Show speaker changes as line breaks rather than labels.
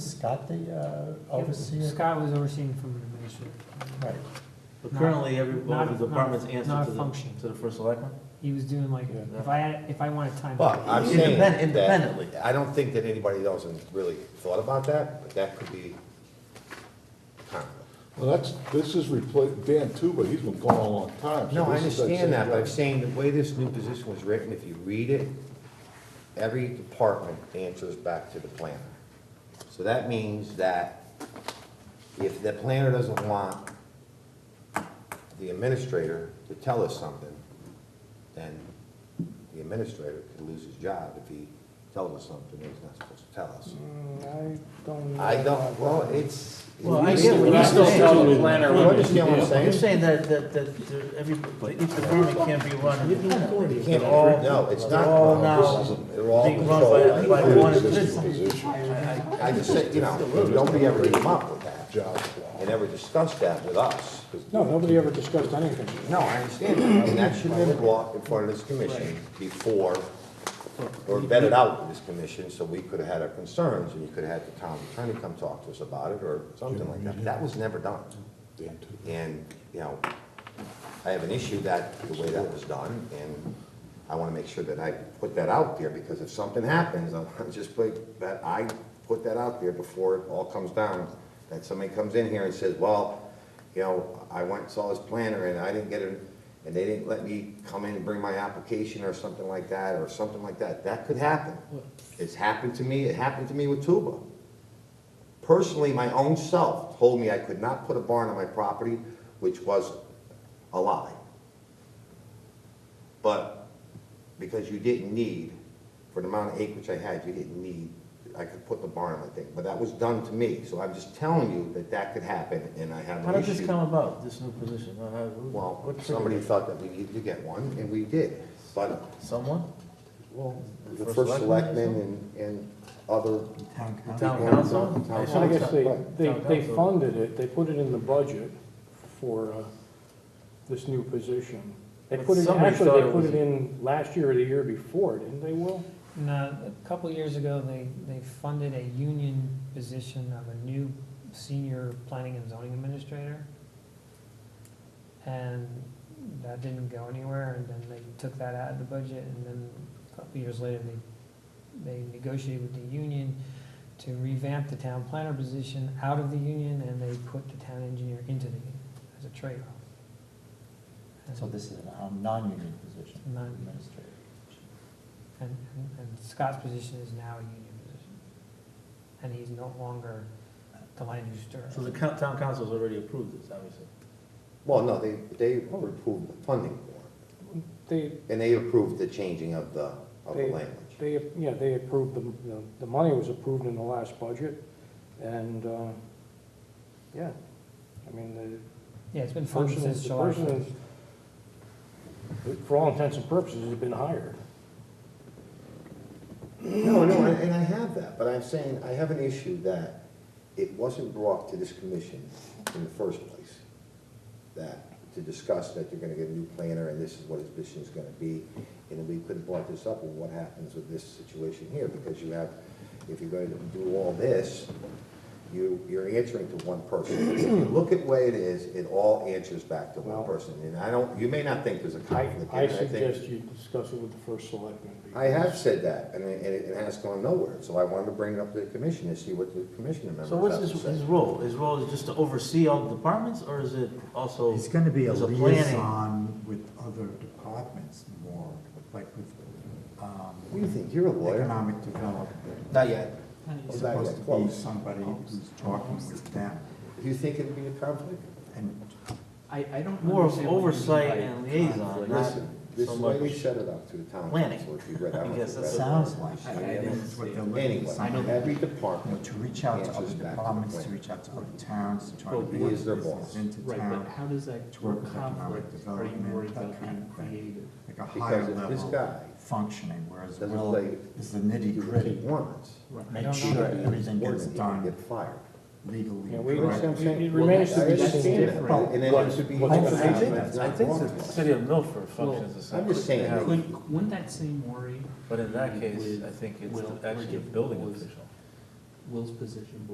Scott the uh, overseer?
Scott was overseeing from the administrator.
Right,
But currently, every, all
Not-
the departments
not-
answer
not a
to the,
function.
to the first selectman?
He was doing like,
Yeah.
if I had, if I wanted time.
Well, I'm saying
Independ-
that.
independently.
I don't think that anybody else has really thought about that, but that could be.
Well, that's, this is repla Dan Tuba, he's been gone a long time. so
No, I
this is that same
understand that, but I'm
guy.
saying the way this new position was written, if you read it, every department answers back to the planner. So that means that if the planner doesn't want the administrator to tell us something, then the administrator could lose his job if he tells us something that he's not supposed to tell us.
I don't. know
I
about
don't,
that.
well, it's.
Well,
you
I
see
get what
what
you're
I'm
saying.
saying.
Still the planner
You
would be-
understand what I'm
You're saying
saying?
that, that, that the- every, each department can't be run independently.
You can't all, no, it's not.
All
no, this
now
is- They're all
being run
controlled.
by, by one
Existing
individual.
position,
I just said, you know, nobody ever came up with that.
job.
They never discussed that with us.
No, nobody ever discussed anything.
No, I understand that, and that should have been brought in front of this commission before, or vetted out with this commission, so we could have had our concerns, and you could have had the town attorney come talk to us about it, or something like that. That was never done.
Dan Tuba.
And, you know, I have an issue that, the way that was done, and I want to make sure that I put that out there, because if something happens, I want to just put, that I put that out there before it all comes down, that somebody comes in here and says, well, you know, I went and saw this planner, and I didn't get it, and they didn't let me come in and bring my application, or something like that, or something like that, that could happen. It's happened to me, it happened to me with Tuba personally, my own self told me I could not put a barn on my property, which was a lie. But because you didn't need, for the amount of acreage I had, you didn't need, I could put the barn on my thing. But that was done to me, so I'm just telling you that that could happen, and I have
How
an
did this
issue.
come about, this new position? Uh, how- who-
Well,
what triggered
somebody
it?
thought that we needed to get one, and we did, but
Someone?
the first selectman and, and other.
The Town
people-
council?
Town
So I guess they,
Right.
they, they funded it, they put it in the budget for, uh, this new position. They
But
put it,
somebody
actually,
thought
they
it
put
was-
it in last year or the year before, didn't they, Will?
And, uh, a couple years ago, they, they funded a union position of a new senior planning and zoning administrator. And that didn't go anywhere, and then they took that out of the budget, and then a couple years later, they, they negotiated with the union to revamp the town planner position out of the union, and they put the town engineer into the union as a trade-off. And-
so this is a um, non-union position,
Non-
administrator.
And, and- and Scott's position is now a union position. And he's no longer the land use
So
director.
the coun- town council's already approved this, obviously.
Well, no, they, they approved the funding for it.
They,
And they approved the changing of the, of the
They-
language.
they, yeah, they approved, the- the, the money was approved in the last budget, and, uh, yeah. I mean, the,
Yeah, it's been funded
person,
since
the
July
person
first.
is, for all intents and purposes, has been hired.
No, no, and and I have that, but I'm saying, I have an issue that it wasn't brought to this commission in the first place, that, to discuss that they're gonna get a new planner, and this is what his position is gonna be, and we could have brought this up, well, what happens with this situation here, because you have, if you're going to do all this, you, you're answering to one person. If you look at the way it is, it all answers back to one
Well-
person, and I don't, you may not think there's a
I,
conflict.
I
and think-
suggest you discuss it with the first selectman.
I have said that, and it, and it has gone nowhere, so I wanted to bring it up to the commission and see what the commissioner members
So what's
have
his,
to
his
say.
role? His role is just to oversee all the departments, or is it also?
It's gonna be a
there's planning?
liaison with other departments more, like with,
What do
um,
you think, you're a lawyer?
economic development.
Not yet.
It's
Not yet,
supposed to be
close.
somebody
Oh.
who's talking with them,
Do you think it'd be a conflict?
and
I, I don't.
More of
understand what you mean by
oversight and liaison, not
Listen, this
so
is why we
much-
set it up to the town
Planning.
council, if you read, I
I
don't know
guess
if you
that's
read it.
sounds like,
I- I didn't
that's what they're looking for,
Anyway,
somebody,
every
you know,
department,
to reach out to other
Answers back to the
departments, to
plan.
reach out to other towns, to try to
Well,
bring
he is their
business
boss.
into
Right, but
town,
how does that
to work with economic
conflict? Are you
development,
worried
that kind
about being
of thing.
creative?
like a higher
because if this
level
guy
functioning, whereas
doesn't
Will
play-
is the
do
nitty
what he
gritty,
wants,
I
make
don't
sure
know.
everything
or
gets
he can
done
get fired.
legally
Yeah, we-
correctly.
It remains to
I
be
understand
seen.
that, but- And then it should be.
What's-
I
what's-
think,
It's
I
not
think
wrong.
the city of Milford functions the same.
I'm just saying,
Yeah.
Couldn't, wouldn't that same worry,
But in that case,
With
I think it's
Will,
actually a
Ricky,
building
Will's-
official.
Will's position,